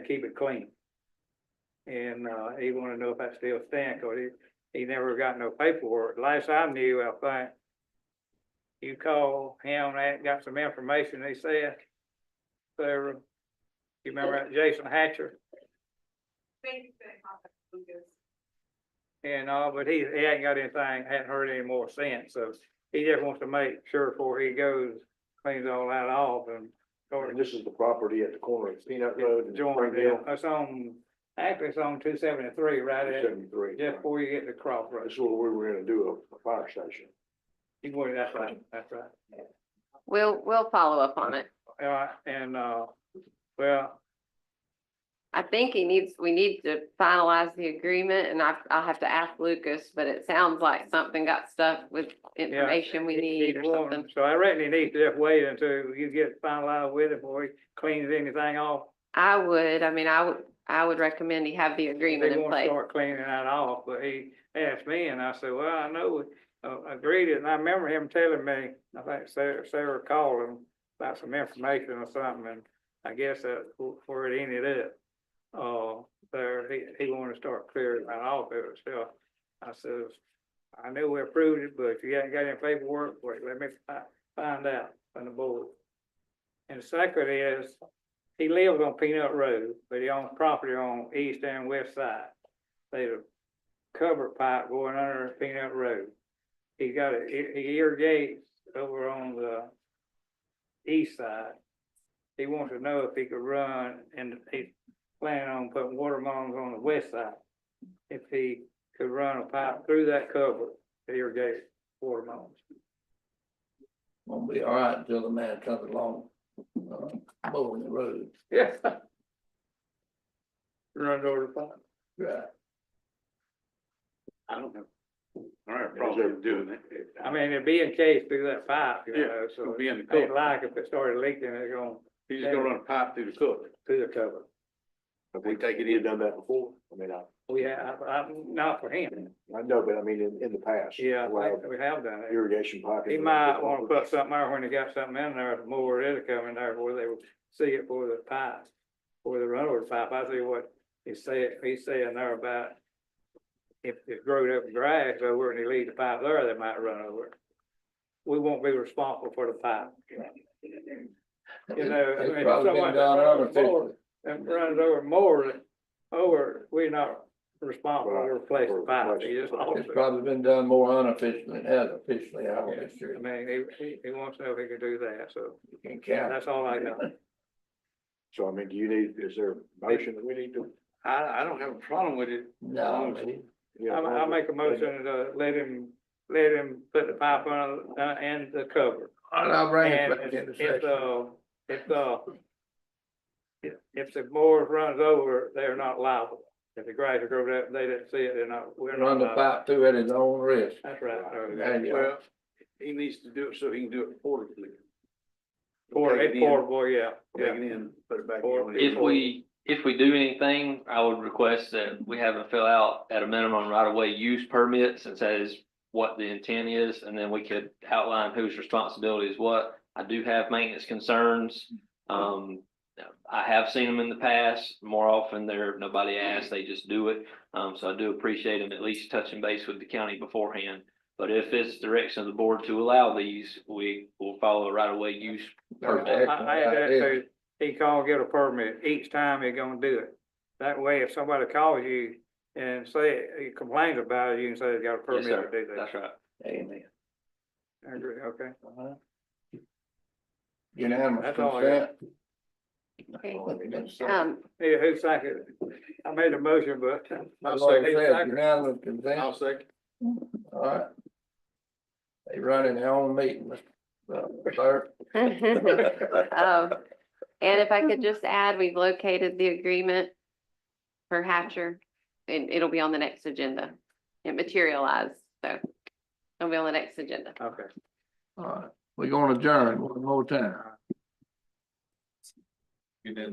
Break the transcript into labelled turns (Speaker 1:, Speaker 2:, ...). Speaker 1: keep it clean. And, uh, he wanted to know if I still stand, cause he, he never got no paperwork. Last I knew, I think. You called him, and got some information, they said. Sarah, you remember that Jason Hatcher and all, but he, he ain't got anything, hadn't heard any more since, so. He just wants to make sure before he goes, cleans all that off and.
Speaker 2: And this is the property at the corner of Peanut Road and
Speaker 1: Join
Speaker 2: Springdale.
Speaker 1: It's on, actually it's on two seventy-three, right at,
Speaker 2: Seventy-three.
Speaker 1: just
Speaker 2: This
Speaker 1: before you get to Crossroads.
Speaker 2: is where we were gonna do a, a fire station.
Speaker 1: You go, that's right, that's right.
Speaker 3: We'll, we'll follow up on it.
Speaker 1: All right, and, uh, well,
Speaker 3: I think he needs, we need to finalize the agreement and I, I'll have to ask Lucas, but it sounds like something got stuck with information we
Speaker 1: he-
Speaker 3: need
Speaker 1: he's
Speaker 3: or
Speaker 1: warning,
Speaker 3: something.
Speaker 1: so I reckon he needs to just wait until you get finalized with it before he cleans anything off.
Speaker 3: I would, I mean, I would, I would recommend he have the agreement
Speaker 1: They
Speaker 3: in
Speaker 1: want to
Speaker 3: place.
Speaker 1: start cleaning that off, but he asked me and I said, well, I know, uh, agreed it. And I remember him telling me, I think Sarah, Sarah called him about some information or something and I guess that where it ended up. Uh, there, he, he wanted to start clearing that off of itself. I says, I knew we approved it, but if you haven't got any paperwork, wait, let me fi- find out from the board. And second is, he lives on Peanut Road, but he owns property on east and west side. There's a cover pipe going under Peanut Road. He got it, he he irrigates over on the east side. He wants to know if he could run and he's planning on putting water mains on the west side. If he could run a pipe through that cover to irrigate water mains.
Speaker 4: Won't be all right until the man comes along, uh, mowing the road.
Speaker 1: Yeah. Run over the pipe.
Speaker 4: Right.
Speaker 5: I don't have. I don't have a problem doing it.
Speaker 1: I mean, it'd be in case through that pipe, you
Speaker 5: Yeah,
Speaker 1: know, so
Speaker 5: It'll be in the
Speaker 1: it ain't
Speaker 5: cook.
Speaker 1: like if it started leaking, it's going
Speaker 5: He's just gonna run a pipe through the cook.
Speaker 1: through the cover.
Speaker 2: Have
Speaker 5: We take it
Speaker 2: we
Speaker 5: in.
Speaker 2: Done that before? I mean, I,
Speaker 1: We have, I, not for him,
Speaker 2: I know, but I mean, in, in the past.
Speaker 1: yeah, I
Speaker 2: Well,
Speaker 1: think we have done it.
Speaker 2: irrigation pipe.
Speaker 1: He might wanna put something there when he got something in there, more it'll come in there where they will see it for the pipe, for the runaway pipe, I see what he said, he's saying there about if it growed up grass over and he leaves the pipe there, they might run over it. We won't be responsible for the pipe. You know, I mean,
Speaker 4: It's probably
Speaker 1: someone-
Speaker 4: been done unofficially.
Speaker 1: and runs over more, over, we're not responsible to replace the pipe, he just lost
Speaker 4: It's
Speaker 1: it.
Speaker 4: probably been done more unofficially than it has officially, I don't think
Speaker 1: I
Speaker 4: sure
Speaker 1: mean, he, he, he wants to know if he can do that, so
Speaker 4: you can count.
Speaker 1: that's all I know.
Speaker 2: So I mean, do you need, is there a motion that we need to?
Speaker 5: I, I don't have a problem with it.
Speaker 4: No, I mean,
Speaker 2: yeah,
Speaker 1: I, I make a motion to let him, let him put the pipe on, uh, and the cover.
Speaker 4: and I'll bring it
Speaker 1: And
Speaker 4: back into
Speaker 1: if, if,
Speaker 4: session.
Speaker 1: uh, if, uh, if, if the mower runs over, they're not liable. If the grass grows up, they didn't see it, they're not, we're not
Speaker 4: Run the
Speaker 1: liable.
Speaker 4: pipe through at his own risk.
Speaker 1: That's right. uh,
Speaker 4: There you go.
Speaker 5: Well, he needs to do it so he can do it portably.
Speaker 1: Pour,
Speaker 5: Take
Speaker 1: it's
Speaker 5: it in,
Speaker 1: portable, yeah,
Speaker 5: Take
Speaker 1: yeah.
Speaker 5: it in, put it back.
Speaker 1: Or-
Speaker 5: in.
Speaker 6: If we, if we do anything, I would request that we have them fill out at a minimum right-of-way use permit, since that is what the intent is, and then we could outline whose responsibility is what. I do have maintenance concerns. Um, I have seen them in the past. More often, they're, nobody asks, they just do it. Um, so I do appreciate them at least touching base with the county beforehand. But if it's direction of the board to allow these, we will follow a right-of-way use
Speaker 4: Perfect.
Speaker 1: I, I had that too.
Speaker 4: Excellent.
Speaker 1: He called, get a permit each time he gonna do it. That way, if somebody calls you and say, he complains about it, you can say they got a permit
Speaker 6: Yes,
Speaker 1: to
Speaker 6: sir.
Speaker 1: do that.
Speaker 6: That's right.
Speaker 4: Amen.
Speaker 1: I agree, okay.
Speaker 4: Uh-huh. Unanimous
Speaker 1: That's all I got.
Speaker 4: consent?
Speaker 3: Okay.
Speaker 2: I mean, that's-
Speaker 3: Um,
Speaker 1: Yeah, who seconded? it? I made a motion, but.
Speaker 4: That's what I said, unanimous consent.
Speaker 5: I'll second.
Speaker 4: All right. They running their own meeting, uh, Mr. Clerk.
Speaker 3: um, and if I could just add, we've located the agreement for Hatcher and it'll be on the next agenda. It materialized, so it'll be on the next agenda.
Speaker 1: Okay.
Speaker 4: All right, we're gonna adjourn one more time.